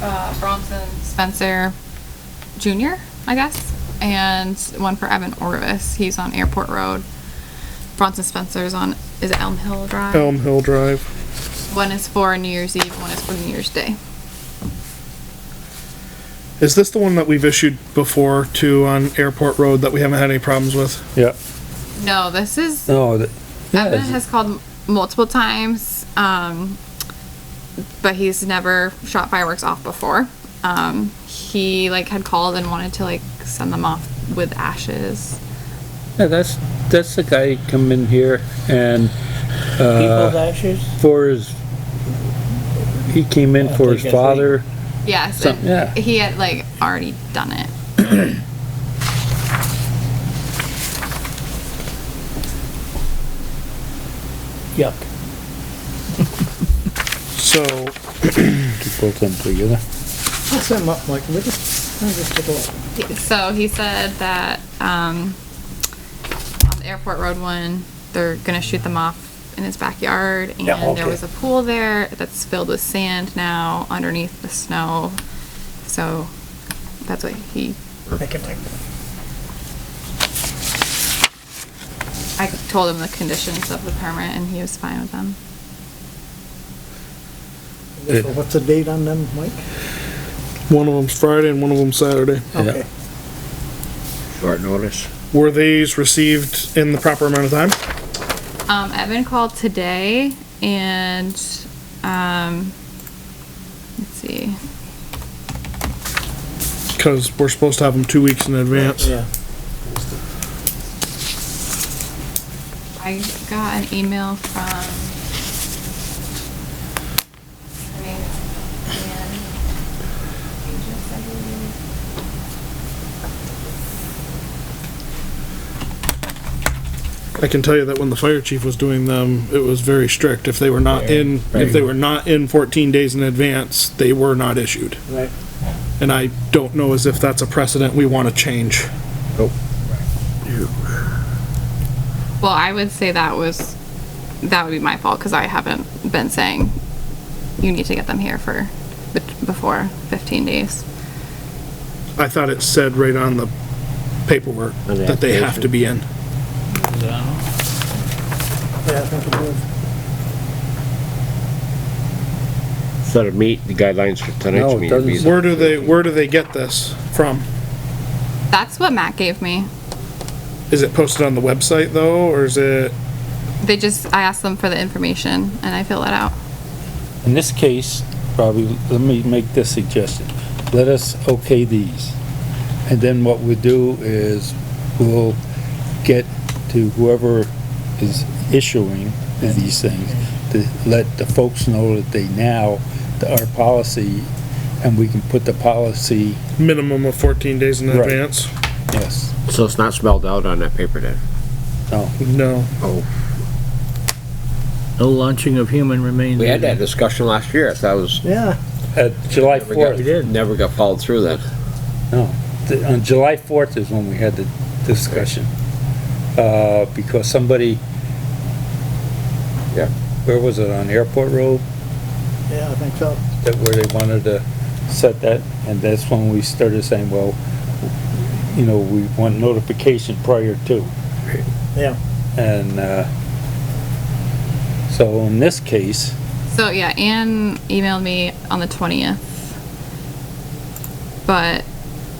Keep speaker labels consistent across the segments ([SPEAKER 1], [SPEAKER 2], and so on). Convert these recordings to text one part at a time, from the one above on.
[SPEAKER 1] uh, Bronson Spencer Jr., I guess, and one for Evan Orvis. He's on Airport Road. Bronson Spencer's on, is it Elm Hill Drive?
[SPEAKER 2] Elm Hill Drive.
[SPEAKER 1] One is for New Year's Eve, one is for New Year's Day.
[SPEAKER 2] Is this the one that we've issued before to on Airport Road that we haven't had any problems with?
[SPEAKER 3] Yeah.
[SPEAKER 1] No, this is
[SPEAKER 3] No, that,
[SPEAKER 1] Evan
[SPEAKER 3] yeah,
[SPEAKER 1] has called m- multiple times, um, but he's never shot fireworks off before. Um, he like had called and wanted to like send them off with ashes.
[SPEAKER 3] yeah, that's, that's the guy who come in here and,
[SPEAKER 4] People's
[SPEAKER 3] uh,
[SPEAKER 4] ashes?
[SPEAKER 3] for his, he came in
[SPEAKER 4] I
[SPEAKER 3] for
[SPEAKER 4] think
[SPEAKER 3] his
[SPEAKER 4] that's right.
[SPEAKER 3] father.
[SPEAKER 1] Yes,
[SPEAKER 3] Some-
[SPEAKER 1] and
[SPEAKER 3] yeah.
[SPEAKER 1] he had like already done it.
[SPEAKER 4] Yuck.
[SPEAKER 2] So,
[SPEAKER 3] To put them together.
[SPEAKER 4] What's that up, Mike? Let me just, let me just take a look.
[SPEAKER 1] So he said that um, on the airport road one, they're gonna shoot them off in his backyard, and
[SPEAKER 4] Yeah,
[SPEAKER 1] there
[SPEAKER 4] okay.
[SPEAKER 1] was a pool there that's filled with sand now underneath the snow. So that's what he.
[SPEAKER 4] I can take that.
[SPEAKER 1] I told him the conditions of the permit, and he was fine with them.
[SPEAKER 3] Yeah.
[SPEAKER 4] So What's the date on them, Mike?
[SPEAKER 2] one of them's Friday and one of them's Saturday.
[SPEAKER 4] Okay.
[SPEAKER 5] Short notice.
[SPEAKER 2] Were these received in the proper amount of time?
[SPEAKER 1] Um, Evan called today, and um, let's see.
[SPEAKER 2] Because we're supposed to have them two weeks in advance.
[SPEAKER 4] Yeah.
[SPEAKER 1] I got an email from. I mean, Ann Aegis, I believe.
[SPEAKER 2] I can tell you that when the fire chief was doing them, it was very strict. If they were not in, if they were not in fourteen days in advance, they were not issued.
[SPEAKER 4] Right.
[SPEAKER 2] And I don't know as if that's a precedent we want to change.
[SPEAKER 1] Well, I would say that was, that would be my fault, cause I haven't been saying, you need to get them here for, bet- before fifteen days.
[SPEAKER 2] I thought it said right on the paperwork
[SPEAKER 5] On the
[SPEAKER 2] that they have to be in.
[SPEAKER 4] Yeah, I think it is.
[SPEAKER 5] So to meet the guidelines for
[SPEAKER 3] No,
[SPEAKER 5] tonight's
[SPEAKER 3] it
[SPEAKER 5] meeting. it'd be
[SPEAKER 3] doesn't.
[SPEAKER 5] the-
[SPEAKER 2] Where do they, where do they get this from?
[SPEAKER 1] That's what Matt gave me.
[SPEAKER 2] Is it posted on the website though, or is it,
[SPEAKER 1] They just, I asked them for the information and I fill it out.
[SPEAKER 3] In this case, probably, let me make this suggestion. Let us okay these. And then what we do is we'll get to whoever is issuing these things to let the folks know that they now, that our policy, and we can put the policy,
[SPEAKER 2] minimum of fourteen days in
[SPEAKER 3] Right.
[SPEAKER 2] advance?
[SPEAKER 3] yes,
[SPEAKER 5] So it's not spelled out on that paper then?
[SPEAKER 3] no.
[SPEAKER 2] No.
[SPEAKER 6] No launching of human remains.
[SPEAKER 5] We had that discussion last year, I thought it was.
[SPEAKER 4] Yeah,
[SPEAKER 3] Uh, July
[SPEAKER 5] never got-
[SPEAKER 3] fourth,
[SPEAKER 5] Never got followed through then.
[SPEAKER 3] on July fourth is when we had the discussion. Uh, because somebody.
[SPEAKER 5] Yeah.
[SPEAKER 3] Where was it, on Airport Road?
[SPEAKER 4] yeah, I think so.
[SPEAKER 3] that where they wanted to set that, and that's when we started saying, well, you know, we want notification prior to.
[SPEAKER 4] Yeah.
[SPEAKER 3] And, uh, so in this case,
[SPEAKER 1] So yeah, Anne emailed me on the twentieth, but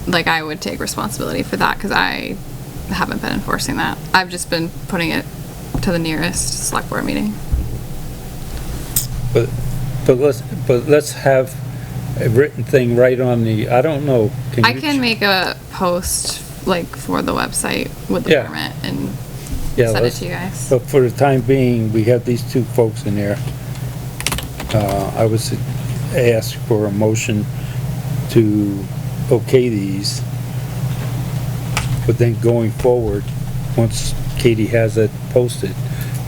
[SPEAKER 1] like I would take responsibility for that because I haven't been enforcing that. I've just been putting it to the nearest select board meeting.
[SPEAKER 3] but, but let's, but let's have a written thing right on the, I don't know.
[SPEAKER 1] I
[SPEAKER 3] you-
[SPEAKER 1] can make a post like for the website with the
[SPEAKER 3] Yeah.
[SPEAKER 1] permit and
[SPEAKER 3] Yeah,
[SPEAKER 1] send it
[SPEAKER 3] let's-
[SPEAKER 1] to you guys.
[SPEAKER 3] But for the time being, we have these two folks in there. Uh, I was asked for a motion to okay these. But then going forward, once Katie has it posted,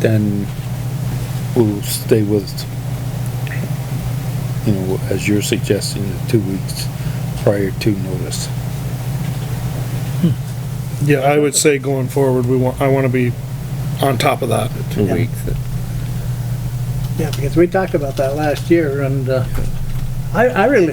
[SPEAKER 3] then we'll stay with, you know, as you're suggesting, the two weeks prior to notice.
[SPEAKER 2] Yeah, I would say going forward, we want, I want to be on top of that.
[SPEAKER 5] Two
[SPEAKER 4] Yeah.
[SPEAKER 5] weeks.
[SPEAKER 4] Yeah, because we talked about that last year and, uh, I, I really